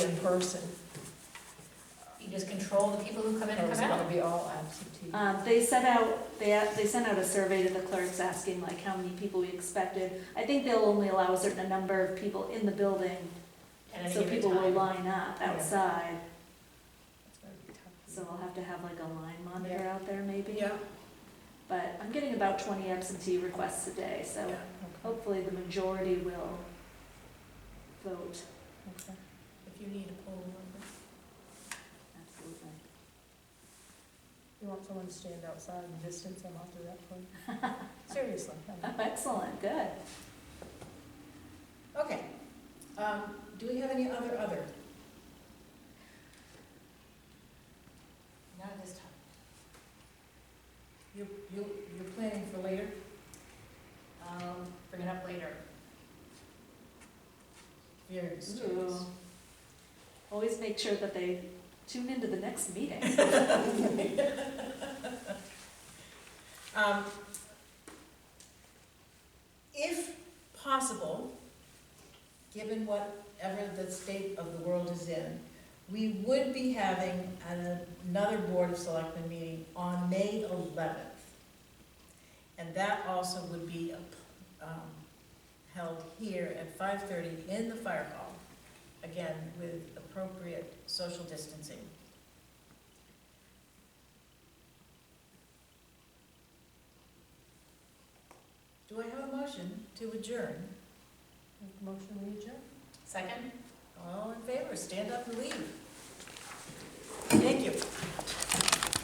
person. You just control the people who come in Or and is come it gonna out. be all absentee? Um, they sent out, they, they sent out a survey to the clerks asking like how many people we expected. I think they'll only allow a certain number of people in the building, at any so given people will time. line up Yeah. outside. It's gonna be tough. So we'll have to have like a line monitor Yeah. out there maybe. Yeah. But I'm getting about twenty absentee requests a day, so Okay. hopefully the majority will vote. Okay. If you need a poll number, Absolutely. you want someone to stand outside and distance them, I'll do that for you. Seriously. I mean. Oh, excellent, good. Okay. Um, do we have any other other? Not at this time. You, you, you're planning for later? I'll Um, bring it up later. Very Ooh. mysterious. Always make sure that they tune into the next meeting. Um, If possible, given whatever the state of the world is in, we would be having an- another Board of Selectmen meeting on May eleventh. And that also would be um, held here at five-thirty in the fire hall, again, with appropriate social distancing. Do I have a motion to adjourn? Motion to adjourn. Second? All in favor, stand up and leave. Thank you.